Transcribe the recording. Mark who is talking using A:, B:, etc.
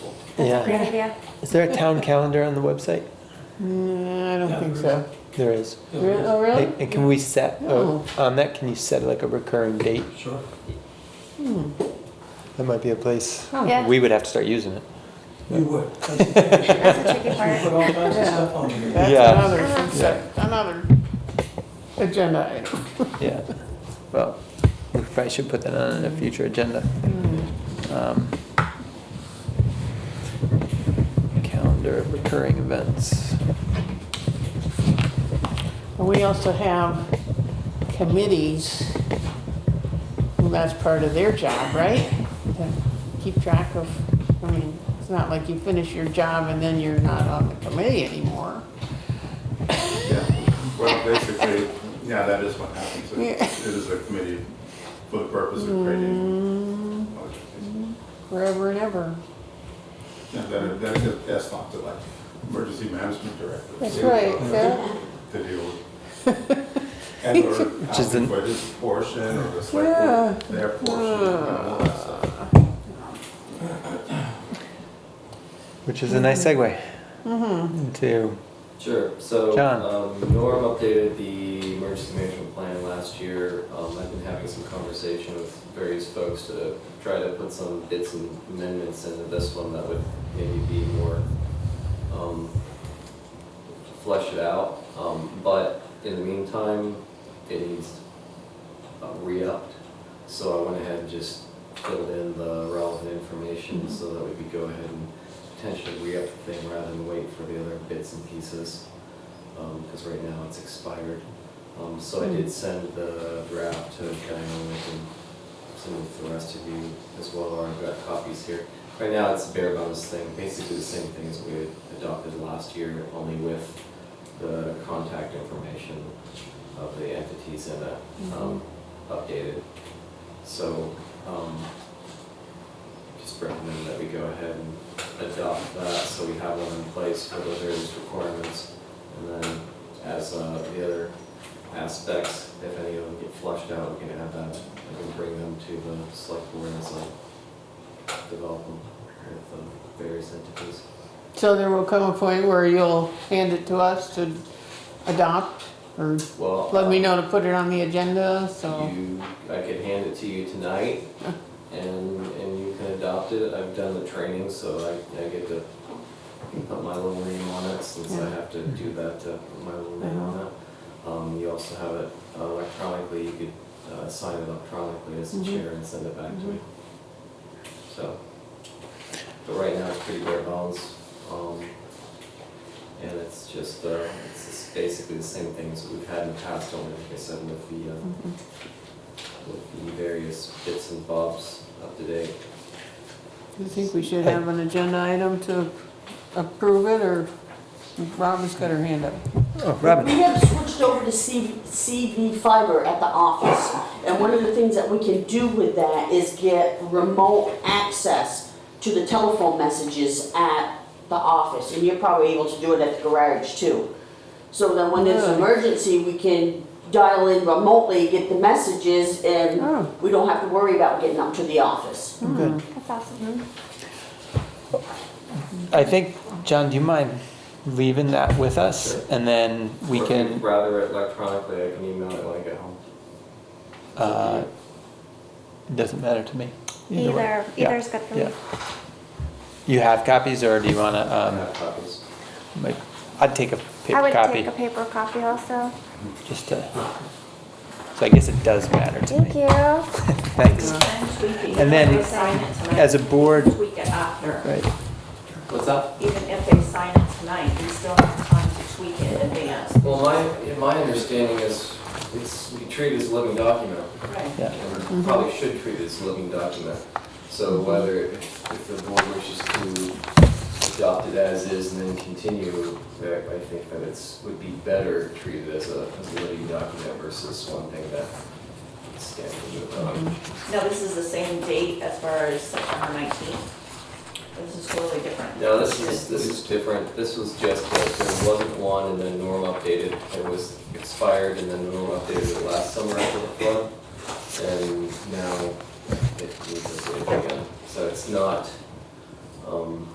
A: Yeah.
B: That's a great idea.
A: Is there a town calendar on the website?
C: Mm, I
D: Yeah,
C: don't think
D: there
C: so.
A: There is.
C: Re- Oh, really?
A: And and can we set, oh, on that, can you set like a recurring date?
D: Sure.
A: That might be a place.
C: Oh.
B: Yeah.
A: We would have to start using it.
D: You would. That's the thing.
B: That's the tricky
D: You put
B: part.
D: all kinds of stuff on here.
C: That's
A: Yeah.
C: another, sec- another agenda item.
A: Yeah. Well, we probably should put that on a future agenda. Um, Calendar of recurring events.
C: And We also have committees, and that's part of their job, right? To Keep track of, I mean, it's not like you finish your job and then you're not on the committee anymore.
E: Yeah, well, basically, yeah, that is what happens. It
C: Yeah.
E: it is a committee for the purpose of creating.
C: Mm, Forever and ever.
E: Yeah, that- that is- That's not the, like, emergency management director.
C: That's
E: Yeah,
C: right,
E: uh,
C: yeah.
E: To deal with. And or
A: is
E: asking
A: an-
E: for his portion or the
C: Yeah.
E: select board, their portion, you know, all that stuff.
A: Which is a nice segue into,
F: Sure, so,
A: John.
F: um, Norm updated the emergency management plan last year. Um, I've been having some conversation with various folks to try to put some bits and amendments into this one that would maybe be more, um, flesh it out. Um, but in the meantime, it needs uh, re-upped. So I went ahead and just filled in the relevant information so that we could go ahead and potentially re-up the thing rather than wait for the other bits and pieces. Because right now it's expired. Um, So I did send the draft to Diana and some of the rest of you as well, or I've got copies here. Right now it's a bare bones thing, basically the same thing as we had adopted last year, only with the contact information of the entities in it um, updated. So, um, just recommend that we go ahead and adopt that, so we have one in place for the various requirements. And then as uh, the other aspects, if any of them get flushed out, we can have that, we can bring them to the select board as a development with um, various entities.
C: So there will come a point where you'll hand it to us to adopt, or
F: Well.
C: let me
F: uh,
C: know to put it on the agenda, so.
F: You, I could hand it to you tonight, and, and you can adopt it. I've done the training, so I, I get to put my little name on it, since I
C: Yeah. Uh-huh.
F: have to do that, to put my little name on it. Um, you also have it electronically, you could, uh, sign it electronically as the chair and send it back to me. So, but right now it's pretty bare bones, um, and it's just, uh, it's just basically the same things we've had in the past, only like I said, with the, uh, with the various bits and bobs up to date.
C: Do you think we should have an agenda item to approve it, or Robin's got her hand up?
A: oh, Robin.
G: We have switched over to C- CV fiber at the office. And one of the things that we can do with that is get remote access to the telephone messages at the office. And you're probably able to do it at the garage too. So then when there's an emergency, we can dial in remotely, get the messages,
C: Oh.
G: and we don't have to worry about getting up to the office.
A: Good.
B: That's awesome.
A: I think, John, do you mind leaving that with us?
F: Sure.
A: And then we
F: Or
A: can,
F: Rather electronically, I can email it when I get home.
A: uh, doesn't matter to me. way.
B: Either,
A: Yeah.
B: either's good for me.
A: Yeah. You have copies or do you wanna,
F: I
A: um,
F: have copies.
A: like, I'd take a
B: I
A: paper
B: would take
A: copy,
B: a paper copy also.
A: just to, so I guess it does matter to
B: Thank
A: me.
B: you.
A: Thanks. And then-
H: Even if they sign it tonight,
A: As a board,
H: Tweak it after.
A: right,
F: What's up?
H: Even if they sign it tonight, we still have time to tweak it in advance.
F: Well, my, my understanding is, it's, we treat it as a living document.
H: Right.
A: yeah.
F: and we probably should treat it as a living document. So whether, if the board wishes to adopt it as is and then continue, that I think that it's, would be better treated as a, as a living document versus one thing that stands alone.
H: Now, this is the same date as far as September nineteenth. This is totally different.
F: Now, this is, this is different, this was just, that there wasn't one and then Norm updated, it was expired and then Norm updated it last summer after the flood. And now it needs to again, so it's not, um,